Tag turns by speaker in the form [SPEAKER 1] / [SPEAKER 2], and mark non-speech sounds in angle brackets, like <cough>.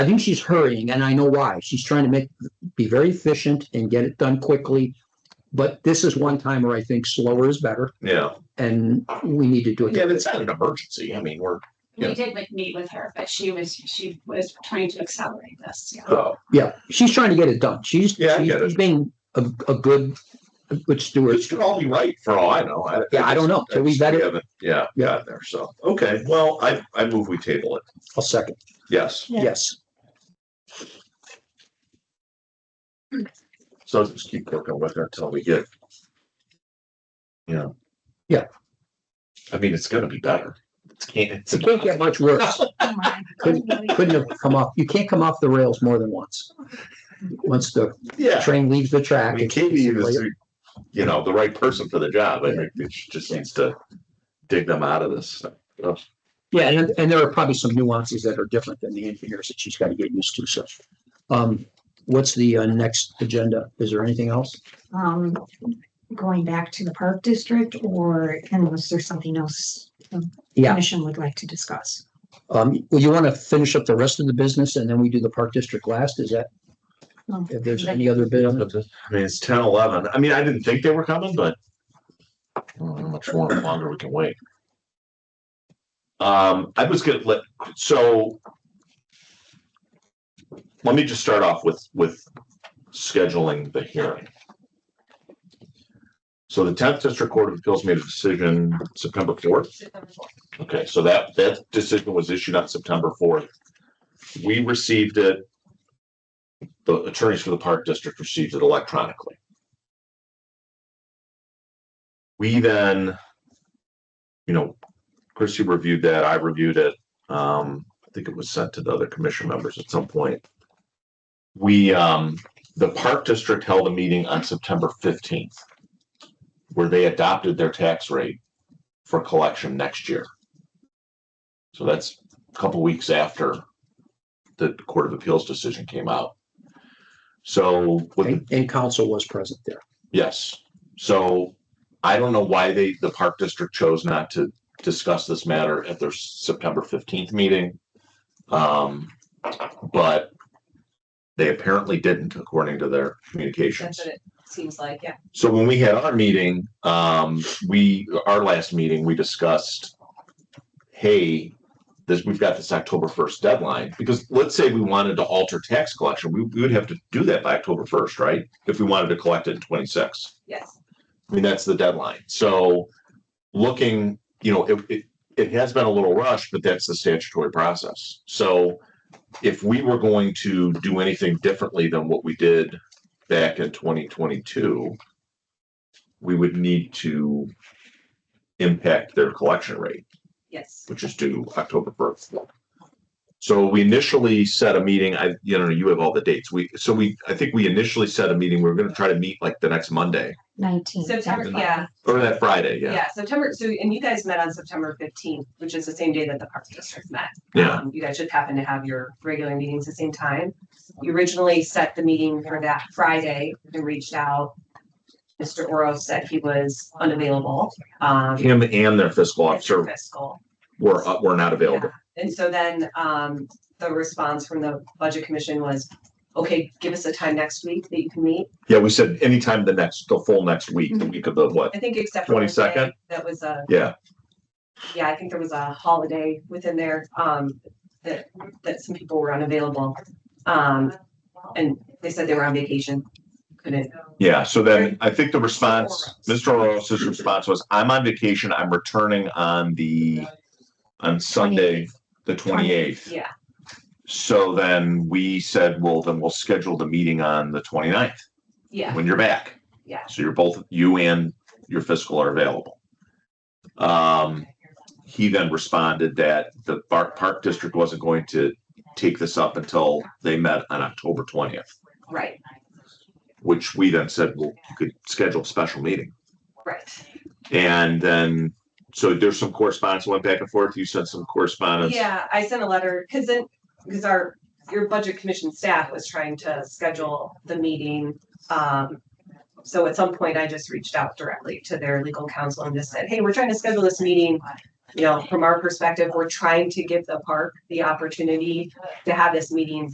[SPEAKER 1] I think she's hurrying and I know why. She's trying to make, be very efficient and get it done quickly. But this is one time where I think slower is better
[SPEAKER 2] Yeah,
[SPEAKER 1] and we need to do
[SPEAKER 2] yeah,
[SPEAKER 1] it.
[SPEAKER 2] but it's not an emergency. I mean, we're, Yeah.
[SPEAKER 3] We did like meet with her, but she was, she was trying to accelerate this, yeah.
[SPEAKER 2] oh,
[SPEAKER 1] Yeah, she's trying to get it done. She's,
[SPEAKER 2] Yeah, I
[SPEAKER 1] she's
[SPEAKER 2] get it.
[SPEAKER 1] she's being a, a good, a good steward.
[SPEAKER 2] this could all be right for all I know.
[SPEAKER 1] Yeah, I don't know. So we
[SPEAKER 2] just-
[SPEAKER 1] better-
[SPEAKER 2] haven't- Yeah,
[SPEAKER 1] Yeah.
[SPEAKER 2] got there. So, okay, well, I, I move we table it.
[SPEAKER 1] I'll second.
[SPEAKER 2] Yes.
[SPEAKER 4] Yeah.
[SPEAKER 1] Yes.
[SPEAKER 2] So just keep working with her until we get. You know.
[SPEAKER 1] Yeah.
[SPEAKER 2] I mean, it's gonna be better. It's can't, it's.
[SPEAKER 1] It can't get much
[SPEAKER 2] <laughs>
[SPEAKER 1] worse.
[SPEAKER 4] Oh my.
[SPEAKER 1] Couldn't, couldn't have come off, you can't come off the rails more than once. Once the
[SPEAKER 2] Yeah,
[SPEAKER 1] train leaves the
[SPEAKER 2] I
[SPEAKER 1] track.
[SPEAKER 2] mean, Katie is, you know, the right person for the job. I think she just needs to dig them out of this.
[SPEAKER 1] Yeah, and, and there are probably some nuances that are different than the engineers that she's got to get used to, so. Um, what's the uh, next agenda? Is there anything else?
[SPEAKER 4] Um, going back to the park district or unless there's something else the
[SPEAKER 1] Yeah.
[SPEAKER 4] commission would like to discuss.
[SPEAKER 1] Um, well, you want to finish up the rest of the business and then we do the park district last? Is that?
[SPEAKER 4] No.
[SPEAKER 1] If there's any other bit on
[SPEAKER 2] I
[SPEAKER 1] it?
[SPEAKER 2] mean, it's ten, eleven. I mean, I didn't think they were coming, but. I don't know how much more longer we can wait. Um, I was gonna let, so. Let me just start off with, with scheduling the hearing. So the tenth district court of appeals made a decision September fourth. Okay, so that, that decision was issued on September fourth. We received it. The attorneys for the park district received it electronically. We then, you know, Chrissy reviewed that, I reviewed it. Um, I think it was sent to the other commission members at some point. We, um, the park district held a meeting on September fifteenth where they adopted their tax rate for collection next year. So that's a couple weeks after the Court of Appeals decision came out. So with the
[SPEAKER 1] And, and council was present there.
[SPEAKER 2] Yes, so I don't know why they, the park district chose not to discuss this matter at their September fifteenth meeting. Um, but they apparently didn't according to their communications.
[SPEAKER 5] That's what it seems like, yeah.
[SPEAKER 2] So when we had our meeting, um, we, our last meeting, we discussed, hey, this, we've got this October first deadline, because let's say we wanted to alter tax collection, we, we would have to do that by October first, right? If we wanted to collect it in twenty-six.
[SPEAKER 5] Yes.
[SPEAKER 2] I mean, that's the deadline. So looking, you know, it, it, it has been a little rushed, but that's the statutory process. So if we were going to do anything differently than what we did back in twenty twenty-two, we would need to impact their collection rate,
[SPEAKER 5] Yes.
[SPEAKER 2] which is due October first. So we initially set a meeting, I, you know, you have all the dates. We, so we, I think we initially set a meeting, we were gonna try to meet like the next Monday
[SPEAKER 4] Nineteen.
[SPEAKER 5] September, yeah,
[SPEAKER 2] or that Friday,
[SPEAKER 5] yeah, September, so, and you guys met on September fifteenth, which is the same day that the Parks District met.
[SPEAKER 2] Yeah.
[SPEAKER 5] Um, You guys just happened to have your regular meetings the same time. You originally set the meeting for that Friday and reached out. Mr. Oro said he was unavailable, um.
[SPEAKER 2] him and their fiscal officer
[SPEAKER 5] Fiscal.
[SPEAKER 2] were, uh, were not available.
[SPEAKER 5] And so then, um, the response from the Budget Commission was, okay, give us a time next week that you can meet.
[SPEAKER 2] Yeah, we said anytime the next, the full next week, the week of the what?
[SPEAKER 5] I think except for. one day,
[SPEAKER 2] 22nd?
[SPEAKER 5] That was a,
[SPEAKER 2] Yeah,
[SPEAKER 5] yeah, I think there was a holiday within there, um, that, that some people were unavailable. Um, and they said they were on vacation, couldn't,
[SPEAKER 2] yeah. So then I think the response, Mr. Oros's response was, I'm on vacation. I'm returning on the, on Sunday, the twenty-eighth.
[SPEAKER 5] yeah,
[SPEAKER 2] So then we said, well, then we'll schedule the meeting on the 29th
[SPEAKER 5] yeah,
[SPEAKER 2] when you're back.
[SPEAKER 5] yeah.
[SPEAKER 2] So you're both, you and your fiscal are available. Um, he then responded that the Park, Park District wasn't going to take this up until they met on October twentieth,
[SPEAKER 5] Right,
[SPEAKER 2] which we then said, well, you could schedule a special meeting.
[SPEAKER 5] right.
[SPEAKER 2] And then, so there's some correspondence went back and forth. You sent some correspondence.
[SPEAKER 5] Yeah, I sent a letter, cause then, cause our, your Budget Commission staff was trying to schedule the meeting. Um, so at some point I just reached out directly to their legal counsel and just said, hey, we're trying to schedule this meeting. You know, from our perspective, we're trying to give the park the opportunity to have this meeting